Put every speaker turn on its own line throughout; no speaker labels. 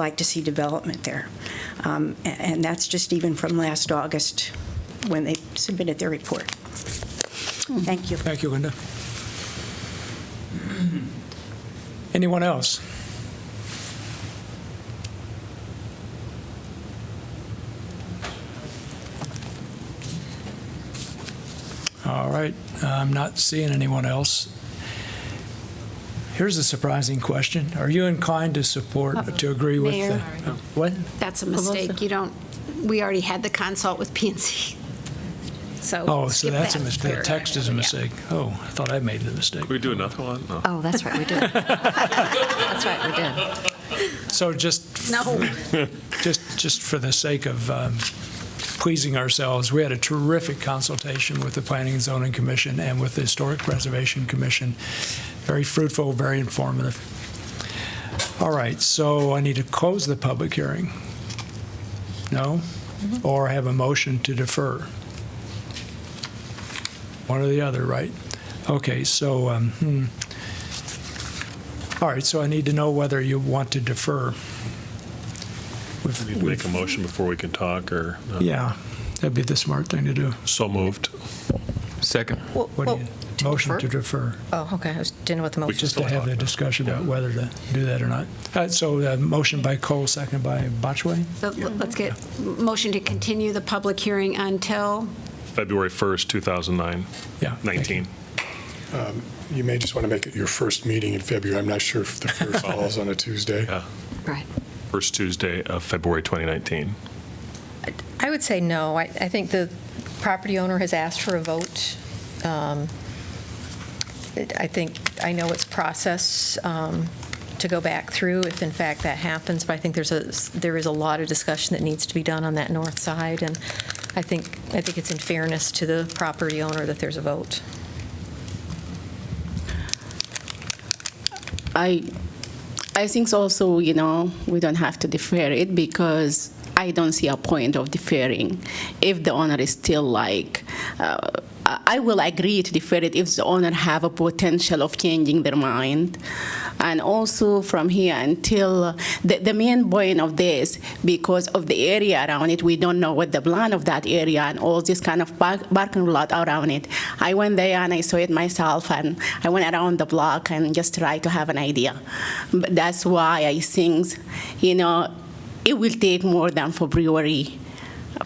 like to see development there. Um, a- And that's just even from last August, when they submitted their report. Thank you.
Thank you, Linda. Anyone else? All right, I'm not seeing anyone else. Here's a surprising question. Are you inclined to support, to agree with the?
Uh,
uh,
Mayor.
What?
That's a mistake. You don't, we already had the consult with PNC. So.
Oh, so
skip
that's a
that.
mistake. The text is a
Yeah.
mistake. Oh, I thought I made the mistake.
We do another one? No.
Oh, that's right, we did. That's right, we did.
So just
No.
just, just for the sake of um, pleasing ourselves, we had a terrific consultation with the Planning and Zoning Commission and with the Historic Preservation Commission. Very fruitful, very informative. All right, so I need to close the public hearing. No? Or have a motion to defer? One or the other, right? Okay, so, um, hmm. all right, so I need to know whether you want to defer. We've-
Need to make a motion before we can talk, or? no?
yeah, that'd be the smart thing to do.
So moved.
Second.
What do you, motion to defer,
Oh, okay, I was- didn't know what the motion
just to have the discussion about whether to do that or not. Uh, So, uh, motion by Cole, second by Botchway?
So let's get, motion to continue the public hearing until,
February 1st, 2009,
Yeah. thank you.
19.
You may just want to make it your first meeting in February. I'm not sure if the first falls on a Tuesday.
Yeah,
right,
first Tuesday of February 2019.
I would say no. I, I think the property owner has asked for a vote. Um, it- I think, I know it's process um, to go back through if in fact that happens, but I think there's a, there is a lot of discussion that needs to be done on that north side, and I think, I think it's in fairness to the property owner that there's a vote.
I, I think also, you know, we don't have to defer it because I don't see a point of deferring if the owner is still like, uh, I I will agree to defer it if the owner have a potential of changing their mind. And also from here until, the, the main point of this, because of the area around it, we don't know what the plan of that area and all this kind of park- parking lot around it. I went there and I saw it myself and I went around the block and just try to have an idea. But that's why I think, you know, it will take more than February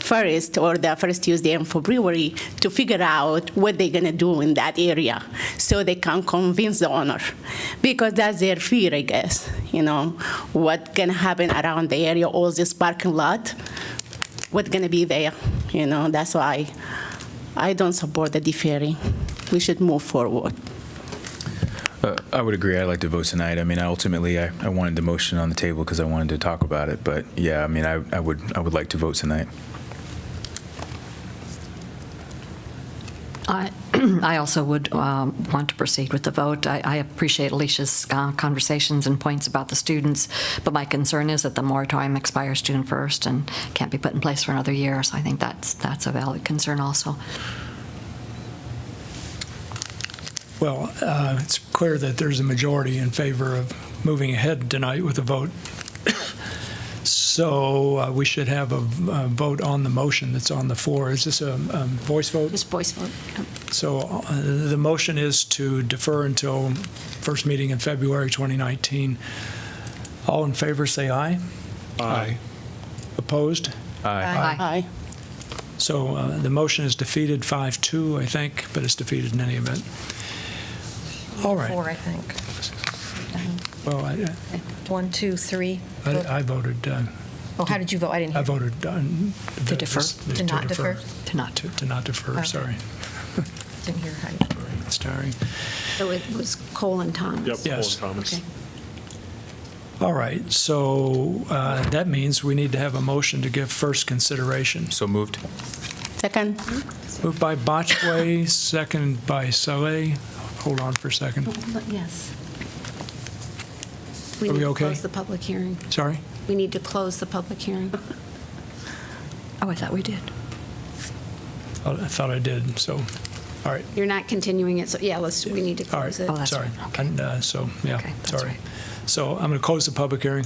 first or the first Tuesday in February to figure out what they're gonna do in that area so they can convince the owner. Because that's their fear, I guess, you know, what can happen around the area, all this parking lot, what's gonna be there, you know, that's why I don't support the deferring. We should move forward.
Uh, I would agree. I'd like to vote tonight. I mean, I ultimately, I, I wanted the motion on the table because I wanted to talk about it. But yeah, I mean, I, I would, I would like to vote tonight.
I I also would um, want to proceed with the vote. I- I appreciate Alicia's uh, conversations and points about the students, but my concern is that the moratorium expires June 1st and can't be put in place for another year, so I think that's, that's a valid concern also.
Well, uh, it's clear that there's a majority in favor of moving ahead tonight with a vote. So uh, we should have a v- a vote on the motion that's on the floor. Is this a um, voice vote?
just voice vote.
So uh, the motion is to defer until first meeting in February 2019. All in favor, say aye.
Aye.
Opposed?
Aye.
So uh, the motion is defeated 5-2, I think, but it's defeated in any event. All right.
Four, I think.
Well, I-
One, two, three.
I I voted, uh,
Oh, how did you vote? I didn't
I
hear.
voted. uh, the-
defer?
the-
To not defer?
To not.
To to not defer,
Okay.
sorry.
Didn't hear how you.
It's tiring.
So it was Cole and Thomas.
Yep.
Yes.
Paul and Thomas.
Okay.
All right, so uh, that means we need to have a motion to give first consideration.
So moved.
Second?
Moved by Botchway, second by Saleh. Hold on for a second.
Yes.
Are we
need to
okay?
Close the public hearing.
Sorry?
We need to close the public hearing.
Oh, I thought we did.
Oh, I thought I did, so, all right,
You're not continuing it, so yeah, let's, we need to
all right,
close it.
Oh, that's
sorry.
right, okay.
And uh, so, yeah,
Okay, that's
sorry.
right.
So I'm going to close the public hearing.